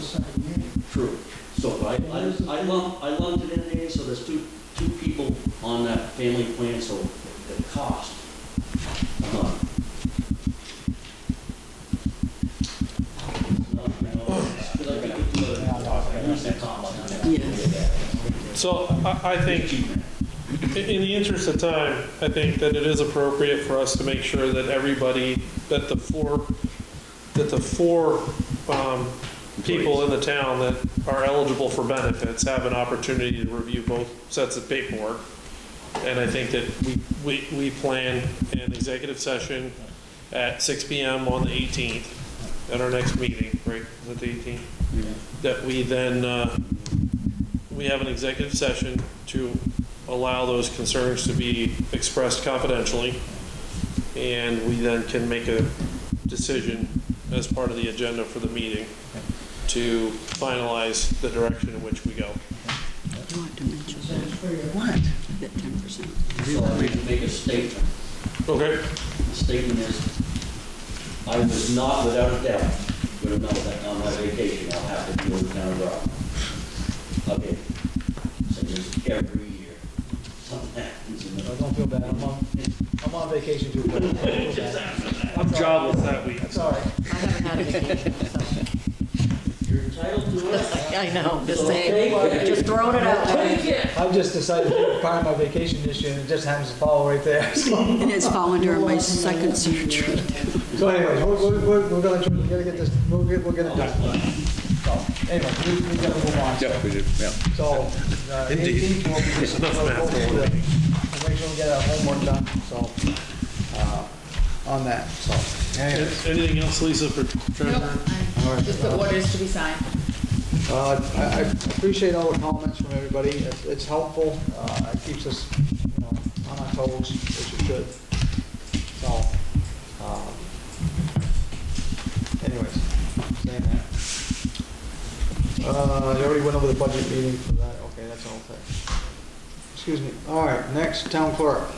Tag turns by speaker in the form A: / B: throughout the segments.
A: second unit.
B: True. So I, I I lumped, I lumped it in there, so there's two, two people on that family plan, so the cost. uh, I'm not- it's not, you know, it's- 'cause I think we do it- we said top line on that.
C: So I, I think, i- in the interest of time, I think that it is appropriate for us to make sure that everybody, that the four, that the four um, people in the town that are eligible for benefits have an opportunity to review both sets of paperwork. And I think that we, we, we plan an executive session at 6 PM on the 18th, at our next meeting, right, is it the 18th? That we then, uh, we have an executive session to allow those concerns to be expressed confidentially, and we then can make a decision as part of the agenda for the meeting to finalize the direction in which we go.
D: You want to mention
A: Sounds pretty good.
D: What? That 10%.
B: So I need to make a statement.
C: Okay,
B: The statement is, I was not without a doubt going to know that on my vacation, I'll have to deal with town rock. Okay, so just every year, something happens in the
A: I don't feel bad, I'm on, I'm on vacation too. but I don't feel bad.
C: I'm jobless that week.
A: That's all right.
E: I haven't had a vacation, so.
B: You're entitled to it.
E: I know, just
B: So
E: saying,
B: take
E: just throwing it out there.
B: Take it.
A: I've just decided to prime my vacation this year, and it just happens to fall right there. So
D: And it's fallen during my second surgery.
A: so anyway, we're, we're- we're, we're gonna, try- we gotta get this, we'll get, we'll get it done. So, anyway, we, we gotta move on.
F: Yeah, we do, yeah.
A: So, uh,
F: Indeed.
A: eighteenth will be just, we'll, we'll we'll make sure we get our homework done, so, uh, on that, so. anyway.
C: Anything else, Lisa, for
E: Nope,
C: Trevor?
A: All right.
E: I- Just the orders to be signed.
A: Uh, I I appreciate all the comments from everybody. It's- It's helpful. Uh, It keeps us, you know, on our toes, which it should. So, um, anyways, saying that. Uh, I already went over the budget meeting for that. Okay, that's all thing. Excuse me. All right, next, town clerk.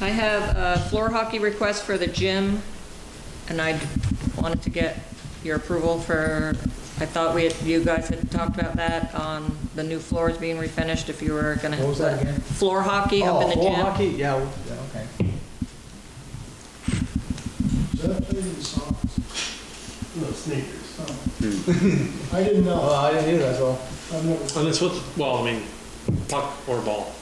E: I have a floor hockey request for the gym, and I wanted to get your approval for, I thought we, had- you guys had talked about that, on the new floors being refinished, if you were gonna.
A: What was that again?
E: Floor hockey up in the
A: Oh,
E: gym.
A: floor hockey? Yeah, w- yeah, okay.
G: No, sneakers. I didn't
A: Hmm. Well,
G: know.
A: Oh. I didn't hear that, so.
G: I've never.
C: And it's with, well, I mean, puck or ball,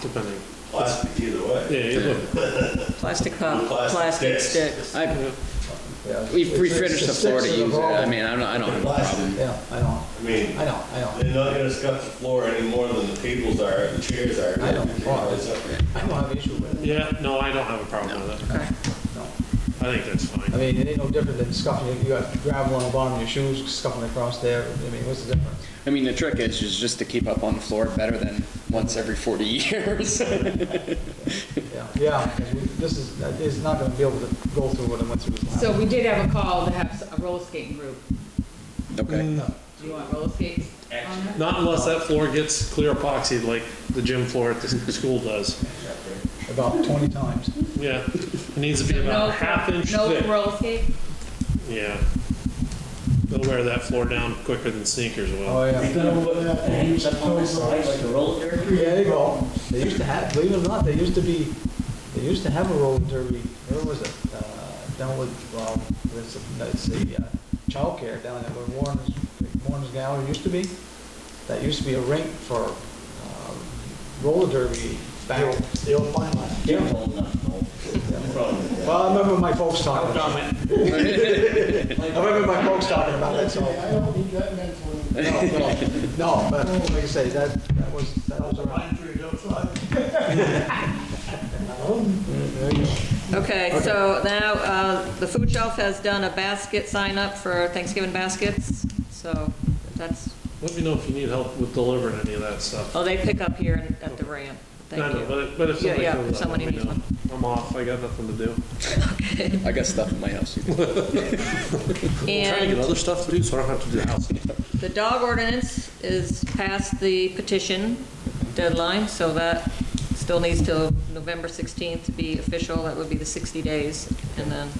C: depending.
H: Plastic either way.
C: Yeah, you look-
E: Plastic
A: Uh,
E: cup,
H: Plastic
E: plastic
H: discs.
E: stick.
F: I,
A: yeah.
F: we we
A: It's- it's
F: finished the
A: six
F: floor to
A: of
F: use it,
A: all.
F: I mean, I don't, I don't have a problem.
A: Yeah, I know,
H: I mean,
A: I know, I know.
H: they're not gonna scuff the floor any more than the tables are, the chairs are.
A: I know.
H: It's up there.
A: I don't have an issue with it,
C: Yeah, no, I don't have a problem with that.
A: no.
C: I think that's
A: I
C: fine.
A: mean, it ain't no different than scuffing, you got gravel on the bottom of your shoes, scuffing across there, I mean, what's the difference?
F: I mean, the trick is, is just to keep up on the floor better than once every forty years.
A: Yeah, yeah, 'cause we- this is, it's not gonna be able to go through what I went through this
I: So
A: last.
I: we did have a call to have a roller skating group.
F: Okay,
I: Do you want roller skates Um, on there?
C: Not unless that floor gets clear epoxied like the gym floor at the school does.
A: About twenty times.
C: Yeah, it needs to be
I: So
C: about
I: no-
C: a half inch
I: No
C: thick.
I: roller skates?
C: Yeah. They'll wear that floor down quicker than sneakers will.
A: Oh,
B: You're
A: yeah.
B: gonna put the hands up on the side like a roller derby?
A: Yeah, there you go. They used to have, believe it or not, they used to be, they used to have a roller derby, where was it? Uh, Down with, well, it's, it's the uh, childcare down there where Warren's, Warren's Gallery used to be. That used to be a rink for uh, roller derby back. The old fine line.
B: You're old enough, no. No problem with
A: Well, I remember my folks talking about it. I remember my folks talking about it, so.
G: Hey, I don't need that mentally.
A: No, no, no, but like I say, that, that was, that was
G: Pine
A: around.
G: trees outside.
A: There you go.
E: Okay, so now, uh, the food shelf has done a basket sign up for Thanksgiving baskets, so that's,
C: Let me know if you need help with delivering any of that stuff.
E: oh, they pick up here in- at the ramp.
C: I
E: Thank
C: know,
E: you.
C: But, but if
E: Yeah,
C: somebody
E: yeah,
C: comes
E: if
C: up, let
E: somebody
C: me
E: needs
C: know. I'm off, I got nothing to do.
F: I got stuff in my house.
C: I'm trying to get
E: And
C: other stuff to do, so I don't have to do the house.
E: the dog ordinance is past the petition deadline, so that still needs till November 16th to be official. That would be the 60 days, and then